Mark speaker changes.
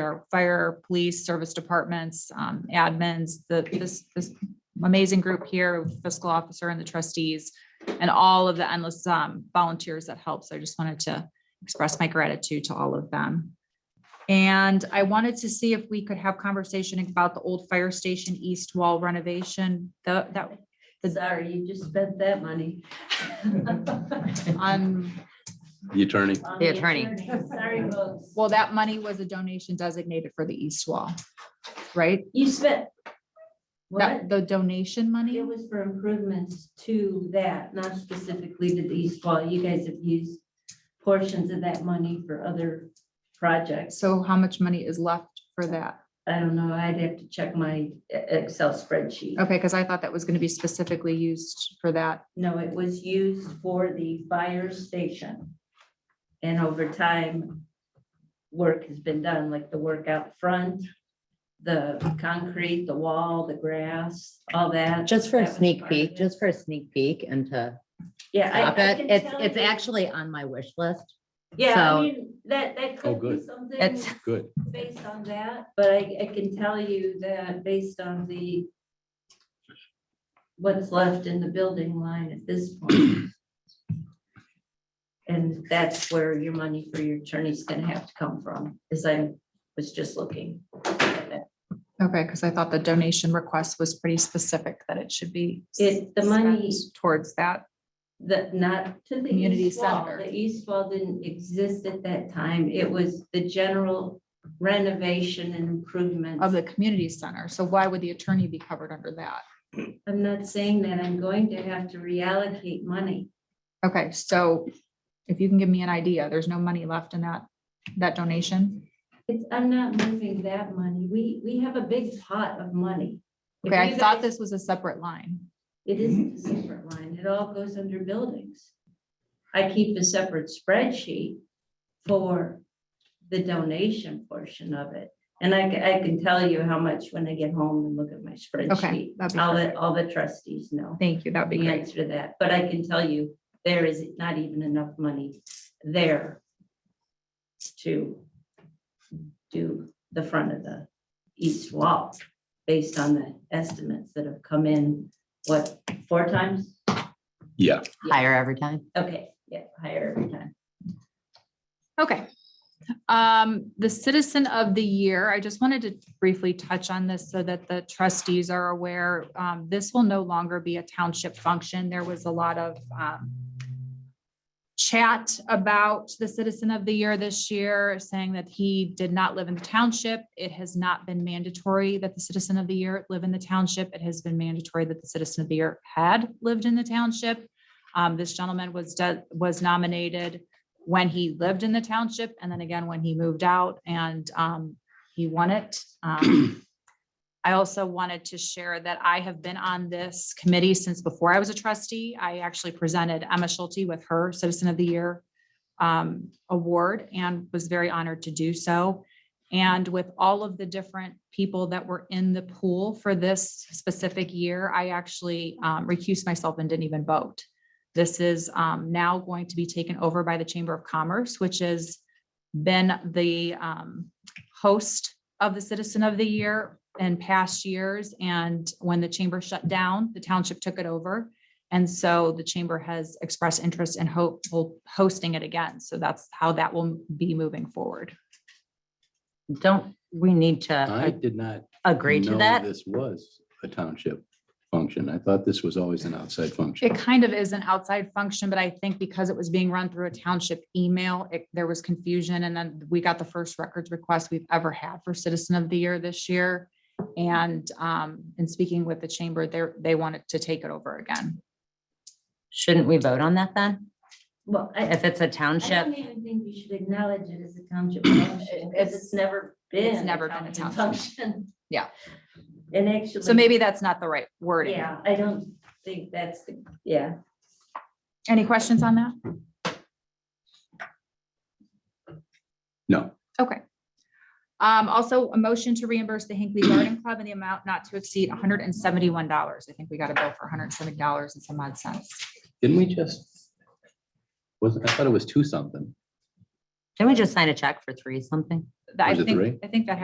Speaker 1: our fire, police, service departments, um, admins, the, this, this amazing group here, fiscal officer and the trustees, and all of the endless, um, volunteers that help. So I just wanted to express my gratitude to all of them. And I wanted to see if we could have conversation about the old fire station east wall renovation, the, that,
Speaker 2: Sorry, you just spent that money.
Speaker 1: on,
Speaker 3: The attorney.
Speaker 2: On
Speaker 4: attorney.
Speaker 2: Sorry, folks.
Speaker 1: well, that money was a donation designated for the east wall, right?
Speaker 2: You spent.
Speaker 1: That,
Speaker 2: What?
Speaker 1: the donation money?
Speaker 2: It was for improvements to that, not specifically to the East Wall. You guys have used portions of that money for other projects.
Speaker 1: So how much money is left for that?
Speaker 2: I don't know, I'd have to check my E- Excel spreadsheet.
Speaker 1: Okay, because I thought that was going to be specifically used for that.
Speaker 2: No, it was used for the fire station. And over time, work has been done, like the work out front, the concrete, the wall, the grass, all that.
Speaker 4: Just for a
Speaker 2: That was
Speaker 4: sneak
Speaker 2: part of
Speaker 4: peek,
Speaker 2: it.
Speaker 4: just for a sneak peek and to
Speaker 2: Yeah. I-
Speaker 4: stop
Speaker 2: I
Speaker 4: it.
Speaker 2: can
Speaker 4: It's,
Speaker 2: tell
Speaker 4: it's
Speaker 2: you-
Speaker 4: actually on my wish list.
Speaker 2: Yeah,
Speaker 4: so-
Speaker 2: I mean, that, that
Speaker 3: Oh,
Speaker 2: could be
Speaker 3: good.
Speaker 2: something
Speaker 4: It's,
Speaker 3: Good.
Speaker 2: based on that, but I, I can tell you that based on the what's left in the building line at this point. And that's where your money for your attorney's gonna have to come from, as I was just looking.
Speaker 1: Okay, because I thought the donation request was pretty specific that it should be.
Speaker 2: It- the money-
Speaker 1: spent Towards that.
Speaker 2: That not to the
Speaker 1: Community
Speaker 2: east wall,
Speaker 1: center.
Speaker 2: the east wall didn't exist at that time, it was the general renovation and improvement.
Speaker 1: of the community center. So why would the attorney be covered under that?
Speaker 2: I'm not saying that, I'm going to have to reallocate money.
Speaker 1: Okay, so if you can give me an idea, there's no money left in that, that donation?
Speaker 2: It's, I'm not moving that money. We, we have a big pot of money. If
Speaker 1: Okay, I
Speaker 2: you
Speaker 1: thought
Speaker 2: guys-
Speaker 1: this was a separate line.
Speaker 2: It isn't a separate line. It all goes under buildings. I keep a separate spreadsheet for the donation portion of it. And I, ca- I can tell you how much when I get home and look at my spreadsheet.
Speaker 1: that'd be
Speaker 2: I'll let all the trustees know
Speaker 1: Thank you, that'd be
Speaker 2: the
Speaker 1: great.
Speaker 2: answer to that, but I can tell you, there is not even enough money there to do the front of the east wall, based on the estimates that have come in, what, four times?
Speaker 3: Yeah.
Speaker 4: higher every time.
Speaker 2: Okay, yeah, higher every time.
Speaker 1: Okay. Um, the citizen of the year, I just wanted to briefly touch on this so that the trustees are aware. Um, this will no longer be a township function. There was a lot of, um, chat about the citizen of the year this year, saying that he did not live in the township. It has not been mandatory that the citizen of the year live in the township. It has been mandatory that the citizen of the year had lived in the township. Um, this gentleman was, de- was nominated when he lived in the township and then again when he moved out and um, he won it. Um, I also wanted to share that I have been on this committee since before I was a trustee. I actually presented Emma Schulte with her Citizen of the Year um, award and was very honored to do so. And with all of the different people that were in the pool for this specific year, I actually um, recused myself and didn't even vote. This is um, now going to be taken over by the Chamber of Commerce, which has been the um, host of the Citizen of the Year in past years. And when the chamber shut down, the township took it over. And so the chamber has expressed interest and hope will hosting it again. So that's how that will be moving forward.
Speaker 4: Don't we need
Speaker 3: I
Speaker 4: to
Speaker 3: did not
Speaker 4: a- agree to
Speaker 3: know
Speaker 4: that?
Speaker 3: this was a township function. I thought this was always an outside function.
Speaker 1: It kind of is an outside function, but I think because it was being run through a township email, it, there was confusion. And then we got the first records request we've ever had for Citizen of the Year this year. And, um, in speaking with the chamber, they're, they wanted to take it over again.
Speaker 4: Shouldn't we vote on that then?
Speaker 2: Well, I,
Speaker 4: If it's a
Speaker 2: I don't
Speaker 4: township,
Speaker 2: even think we should acknowledge it as a township function, because it's never been.
Speaker 1: It's never been a township.
Speaker 2: function.
Speaker 1: Yeah.
Speaker 2: And actually.
Speaker 1: So maybe that's not the right wording.
Speaker 2: Yeah, I don't think that's, the yeah.
Speaker 1: Any questions on that?
Speaker 3: No.
Speaker 1: Okay. Um, also a motion to reimburse the Hinkley Garden Club in the amount not to exceed hundred and seventy-one dollars. I think we got a bill for hundred and seventy dollars and some odd cents.
Speaker 3: Didn't we just? Was, I thought it was two something.
Speaker 4: can we just sign a check for three something?
Speaker 1: I
Speaker 3: Was it
Speaker 1: think,
Speaker 3: three?
Speaker 1: I think that